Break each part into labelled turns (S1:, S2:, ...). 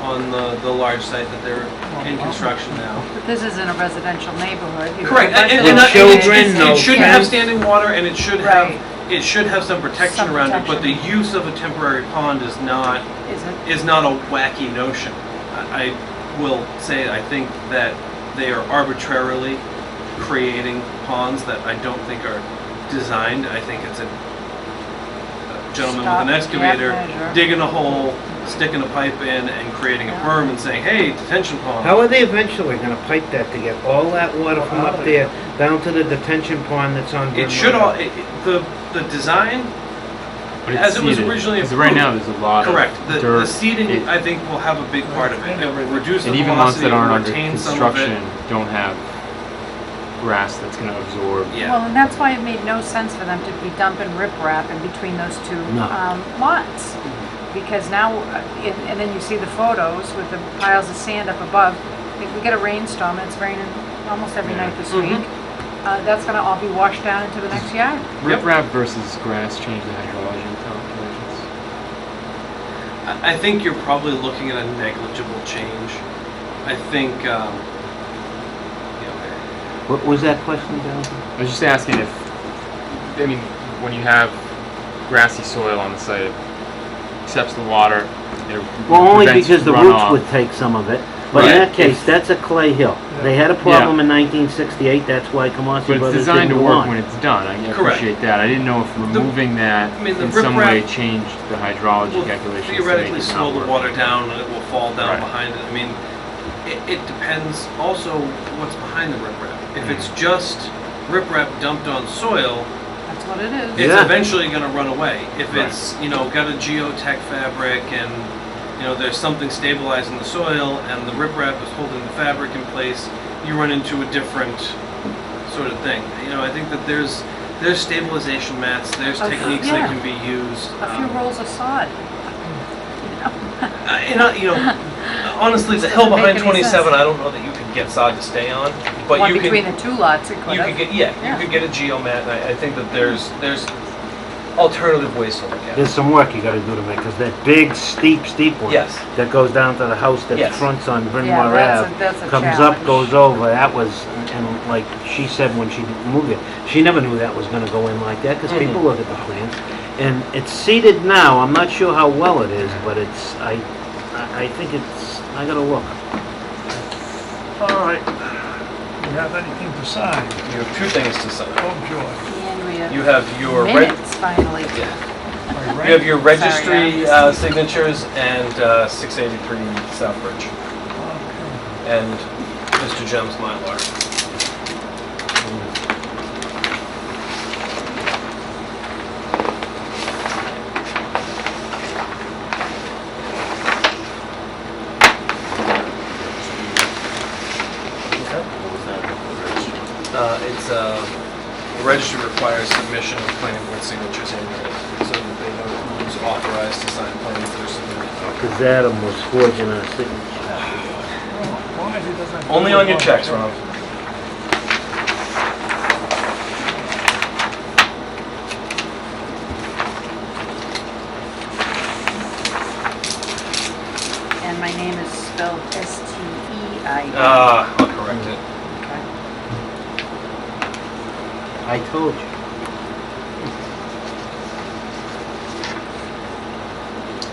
S1: on the, the large site that they're in construction now.
S2: This isn't a residential neighborhood. You
S1: Correct,
S2: have
S1: and, and,
S2: residential
S1: and uh, it-
S2: neighborhoods.
S1: it-
S3: no
S1: it shouldn't have
S3: fence.
S1: standing water, and it should
S2: Right.
S1: have, it should have some protection
S2: Some
S1: around it, but the
S2: protection.
S1: use of a temporary pond is not
S2: Isn't.
S1: is not a wacky notion. I I will say, I think that they are arbitrarily creating ponds that I don't think are designed. I think it's a gentleman
S2: Stop
S1: with an
S2: and
S1: excavator
S2: half measure.
S1: digging a hole, sticking a pipe in and creating a
S2: Yeah.
S1: berm and saying, hey, detention pond.
S3: How are they eventually gonna pipe that to get all that water from up there down to the detention pond that's on? Glen
S1: It should all,
S3: Road?
S1: it- it- the, the design,
S4: But it's
S1: As it was
S4: seeded.
S1: originally
S4: 'Cause Right now, there's a lot of dirt.
S1: correct, the, the seeding,
S4: It-
S1: I think, will have a big part of it. It will reduce the
S4: And even ones
S1: velocity,
S4: that aren't under
S1: retain some of
S4: construction
S1: it.
S4: don't have grass that's gonna absorb.
S1: Yeah,
S2: Well, and that's why it made no sense for them to be dumping riprap in between those two
S3: No.
S2: um, lots. Because now, uh, and and then you see the photos with the piles of sand up above. If we get a rainstorm, and it's raining almost every night this
S1: Mhm.
S2: week, uh, that's gonna all be washed down into the next yard.
S1: Yep.
S4: Riprap versus grass change the hydrology calculations.
S1: I I think you're probably looking at a negligible change. I think, um, you know,
S3: What was that question, Jonathan?
S4: I was just asking if, I mean, when you have grassy soil on the site, it accepts the water, it
S5: Well, only
S4: prevents
S5: because the
S4: runoff.
S5: roots would take some of it. But in
S4: Right.
S5: that case, that's a clay hill. They had a problem in 1968, that's why
S4: But
S5: Kamasi
S4: it's
S5: Brothers
S4: designed
S5: didn't
S4: to
S5: go
S4: work when
S5: on.
S4: it's done. I
S1: Correct.
S4: appreciate that. I didn't know if removing that
S1: I mean, the
S4: in some way
S1: riprap-
S4: changed the hydrology
S1: will
S4: calculations to make
S1: theoretically
S4: it
S1: slow
S4: not
S1: the
S4: work.
S1: water down and it will fall down
S4: Right.
S1: behind it. I mean, it, it depends also what's behind the riprap.
S4: Hmm.
S1: If it's just riprap dumped on soil,
S2: That's what it is.
S1: it's
S5: Yeah.
S1: eventually going to run away. If
S4: Right.
S1: it's, you know, got a geotech fabric and, you know, there's something stabilizing the soil and the riprap is holding the fabric in place, you run into a different sort of thing. You know, I think that there's there's stabilization mats, there's
S2: Of-
S1: techniques
S2: yeah.
S1: that can be used.
S2: A few
S1: um,
S2: rolls of sod.
S1: uh, and I, you know, honestly, the hill
S2: Doesn't make
S1: behind
S2: any
S1: 27,
S2: sense.
S1: I don't know that you can get sod to stay on, but
S2: One
S1: you can
S2: between the two lots, it could
S1: you could
S2: have.
S1: get yeah,
S2: Yeah.
S1: you could get a geomat. And I, I think that there's there's alternative ways to look at it.
S5: There's some work you gotta do to make, because that big steep, steep one.
S1: Yes.
S5: That goes down to the house that
S1: Yes.
S5: fronts on Bryn
S2: Yeah,
S5: Mawr
S2: that's a-
S5: Ave.
S2: that's a
S5: Comes up,
S2: challenge.
S5: goes over, that was, and like she said when she moved it, she never knew that was gonna go in like that, because
S1: Mhm.
S5: people look at the plans. And it's seeded now, I'm not sure how well it is, but it's, I, I I think it's, I gotta look.
S6: All right. You have anything to sign?
S1: You have two things to sign.
S6: Oh, joy.
S2: And we
S1: You
S2: have
S1: have your reg-
S2: minutes finally.
S1: yeah.
S6: My
S1: You have
S6: right-
S1: your registry
S2: Sorry,
S1: uh, signatures and uh, 683 Southbridge
S6: Okay.
S1: and Mr. Jem's Mylar. Uh, it's uh, the registry requires submission of planning board signatures annually, so that they know who's authorized to sign plans that are submitted.
S5: Because Adam was forging our signature.
S6: Oh, why he doesn't-
S1: Only on your checks, Rob.
S2: And my name is spelled E S-T-E-I.
S1: Ah, I'll correct it.
S5: I told you.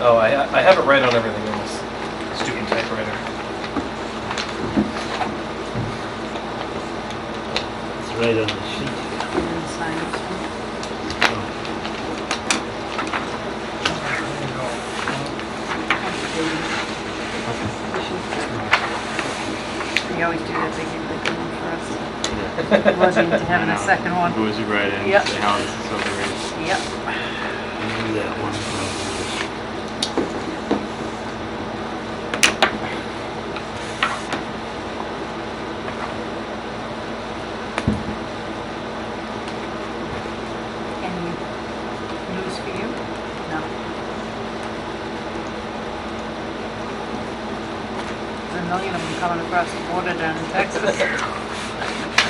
S1: Oh, I, I have it right on everything in this stupid typewriter.
S5: It's right on the sheet.
S2: And sign this one.
S6: There you go.
S2: We always do that, they give the good one for us. It wasn't to having a
S4: Yeah.
S2: second one.
S4: Goes right in,
S2: Yep.
S4: say how this is overrated.
S2: Yep.
S5: You do that one.
S2: Any news for you? No. There's a million of them coming across the border down in Texas.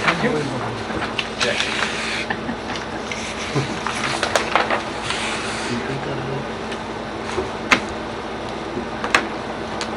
S6: Unbelievable.
S1: Jack.